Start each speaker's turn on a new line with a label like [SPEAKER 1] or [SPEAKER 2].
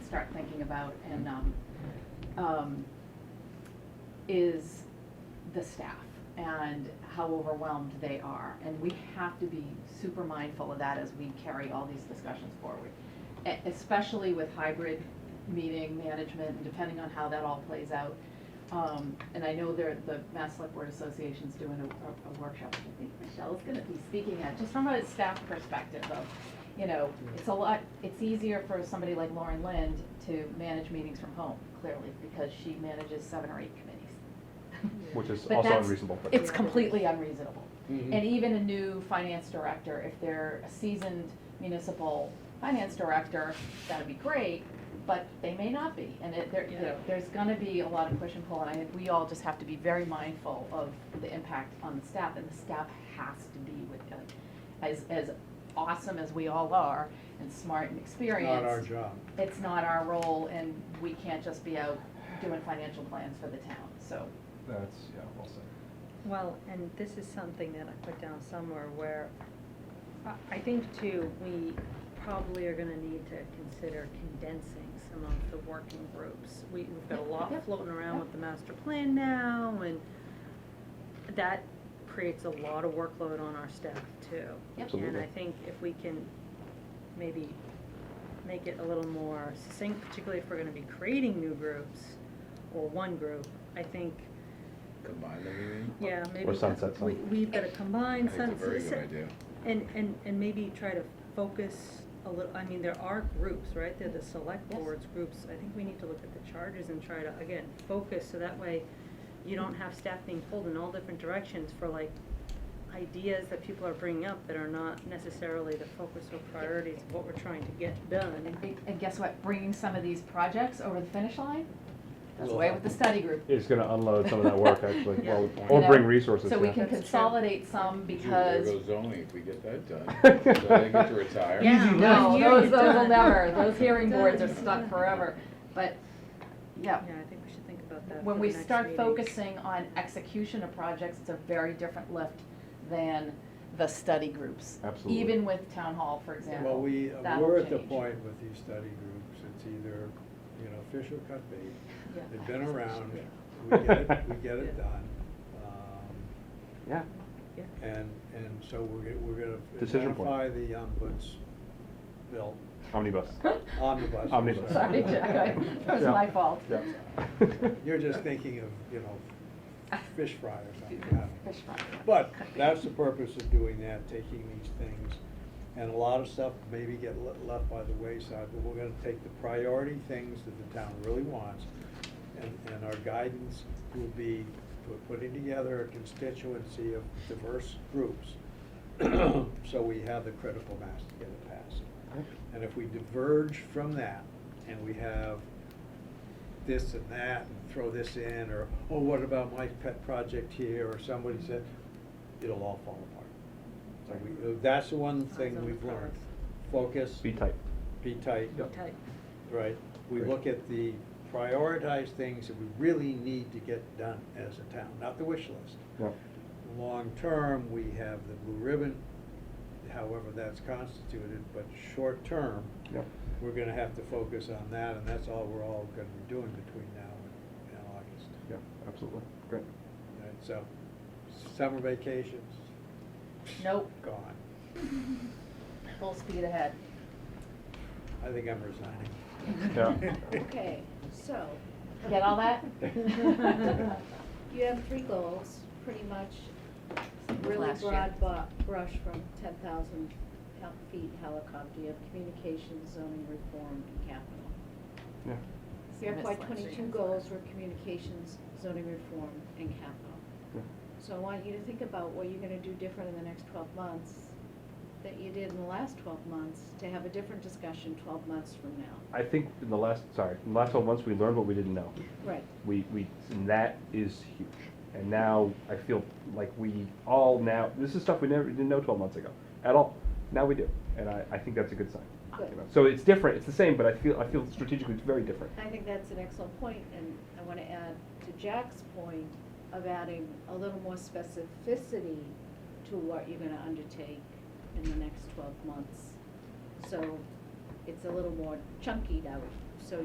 [SPEAKER 1] start thinking about and, um, um, is the staff and how overwhelmed they are. And we have to be super mindful of that as we carry all these discussions forward. E- Especially with hybrid meeting management and depending on how that all plays out. Um, and I know there, the Mass Select Board Association's doing a, a- a workshop, which I think Michelle's gonna be speaking at, just from a staff perspective of, you know, it's a lot, it's easier for somebody like Lauren Lind to manage meetings from home, clearly, because she manages seven or eight committees.
[SPEAKER 2] Which is
[SPEAKER 1] But
[SPEAKER 2] also
[SPEAKER 1] that's-
[SPEAKER 2] unreasonable, but.
[SPEAKER 1] It's completely unreasonable.
[SPEAKER 3] Mm-hmm.
[SPEAKER 1] And even a new finance director, if they're a seasoned municipal finance director, that'd be great, but they may not be. And it, there, you know, there's gonna be a lot of push and pull, and I think we all just have to be very mindful of the impact on the staff, and the staff has to be with, like, as, as awesome as we all are, and smart and experienced
[SPEAKER 3] Not our job.
[SPEAKER 1] it's not our role and we can't just be out doing financial plans for the town, so.
[SPEAKER 2] That's, yeah, well said.
[SPEAKER 4] Well, and this is something that I put down somewhere where, I- I think too, we probably are gonna need to consider condensing some of the working groups. We, we've got a lot
[SPEAKER 1] Yep,
[SPEAKER 4] floating around
[SPEAKER 1] yep.
[SPEAKER 4] with the master plan now, and that creates a lot of workload on our staff too.
[SPEAKER 1] Yep.
[SPEAKER 4] And
[SPEAKER 2] Absolutely.
[SPEAKER 4] I think if we can maybe make it a little more succinct, particularly if we're gonna be creating new groups or one group, I think
[SPEAKER 5] Combine them, you mean?
[SPEAKER 4] yeah, maybe.
[SPEAKER 2] Or sunset some.
[SPEAKER 4] we- We've got a
[SPEAKER 5] I think
[SPEAKER 4] combined
[SPEAKER 5] it's a
[SPEAKER 4] sunset.
[SPEAKER 5] very good idea.
[SPEAKER 4] And, and, and maybe try to focus a little, I mean, there are groups, right? There are the select
[SPEAKER 1] Yes.
[SPEAKER 4] boards groups. I think we need to look at the charges and try to, again, focus, so that way you don't have staff being pulled in all different directions for like ideas that people are bringing up that are not necessarily the focus or priorities of what we're trying to get done.
[SPEAKER 1] And, and guess what, bringing some of these projects over the finish line, that's
[SPEAKER 3] Will
[SPEAKER 1] away with the
[SPEAKER 3] help.
[SPEAKER 1] study group.
[SPEAKER 2] It's gonna unload some of that work, actually,
[SPEAKER 4] Yeah.
[SPEAKER 2] well,
[SPEAKER 4] You
[SPEAKER 2] or
[SPEAKER 1] know,
[SPEAKER 2] bring resources,
[SPEAKER 1] So we
[SPEAKER 2] yeah.
[SPEAKER 1] can
[SPEAKER 4] That's true.
[SPEAKER 1] consolidate some
[SPEAKER 5] Gee, there
[SPEAKER 1] because.
[SPEAKER 5] goes zoning if we get that done. So they get to retire.
[SPEAKER 4] Yeah. Easy
[SPEAKER 1] No,
[SPEAKER 4] now.
[SPEAKER 1] those,
[SPEAKER 4] You're
[SPEAKER 1] those will
[SPEAKER 4] done.
[SPEAKER 1] never, those hearing boards are
[SPEAKER 4] Done.
[SPEAKER 1] stuck forever, but,
[SPEAKER 4] Yeah,
[SPEAKER 1] yeah.
[SPEAKER 4] I think we should think about that
[SPEAKER 1] When
[SPEAKER 4] for
[SPEAKER 1] we
[SPEAKER 4] the next
[SPEAKER 1] start
[SPEAKER 4] meeting.
[SPEAKER 1] focusing on execution of projects, it's a very different lift than the study groups.
[SPEAKER 2] Absolutely.
[SPEAKER 1] Even with town hall, for example.
[SPEAKER 3] Well, we, uh,
[SPEAKER 1] that'll
[SPEAKER 3] we're at the
[SPEAKER 1] change.
[SPEAKER 3] point with these study groups, it's either, you know, fish or cut bait.
[SPEAKER 4] Yeah.
[SPEAKER 3] They've been around, we get it, we get it done. Um,
[SPEAKER 2] Yeah,
[SPEAKER 4] Yeah.
[SPEAKER 3] And, and so we're, go- we're gonna
[SPEAKER 2] Decision point.
[SPEAKER 3] identify the ombuds bill,
[SPEAKER 2] omnibus.
[SPEAKER 3] omnibus. I'm
[SPEAKER 2] Omnibus.
[SPEAKER 1] Sorry, Jack, I- that was my fault.
[SPEAKER 2] Yeah.
[SPEAKER 3] You're just thinking of, you know, fish fry or something. I don't know.
[SPEAKER 1] Fish fry.
[SPEAKER 3] But that's the purpose of doing that, taking these things, and a lot of stuff maybe get le- left by the wayside, but we're gonna take the priority things that the town really wants, and, and our guidance will be, we're putting together a constituency of diverse groups, so we have the critical mass to get it passed. And if we diverge from that, and we have this and that, and throw this in, or, oh, what about my pet project here, or somebody said, it'll all fall apart. So we, that's the one thing we've learned, focus.
[SPEAKER 2] Be tight.
[SPEAKER 3] Be tight.
[SPEAKER 4] Type.
[SPEAKER 3] Right, we look at the prioritized things that we really need to get done as a town, not the wish list.
[SPEAKER 2] Yeah.
[SPEAKER 3] Long-term, we have the blue ribbon, however that's constituted, but short-term,
[SPEAKER 2] Yep.
[SPEAKER 3] we're gonna have to focus on that, and that's all we're all gonna be doing between now and, and August.
[SPEAKER 2] Yeah, absolutely, great.
[SPEAKER 3] Right, so, summer vacations,
[SPEAKER 1] Nope,
[SPEAKER 3] gone.
[SPEAKER 1] full speed ahead.
[SPEAKER 3] I think I'm resigning.
[SPEAKER 2] Yeah.
[SPEAKER 6] Okay, so.
[SPEAKER 1] Get all that?
[SPEAKER 6] You have three goals, pretty much really
[SPEAKER 1] Last year.
[SPEAKER 6] broad bu- brush from ten thousand feet helicopter. You have communications, zoning reform, and capital.
[SPEAKER 2] Yeah,
[SPEAKER 6] Your
[SPEAKER 1] Missed
[SPEAKER 6] FY
[SPEAKER 1] last
[SPEAKER 6] twenty-two
[SPEAKER 1] year.
[SPEAKER 6] goals were communications, zoning reform, and capital.
[SPEAKER 2] yeah,
[SPEAKER 6] So I want you to think about what you're gonna do different in the next twelve months that you did in the last twelve months to have a different discussion twelve months from now.
[SPEAKER 2] I think in the last, sorry, in the last twelve months, we learned what we didn't know.
[SPEAKER 6] Right.
[SPEAKER 2] We, we, and that is huge. And now I feel like we all now, this is stuff we never, didn't know twelve months ago, at all. Now we do, and I, I think that's a good sign. you
[SPEAKER 6] Good.
[SPEAKER 2] know. So it's different, it's the same, but I feel, I feel strategically it's very different.
[SPEAKER 6] I think that's an excellent point, and I want to add to Jack's point of adding a little more specificity to what you're gonna undertake in the next twelve months. So it's a little more chunkied out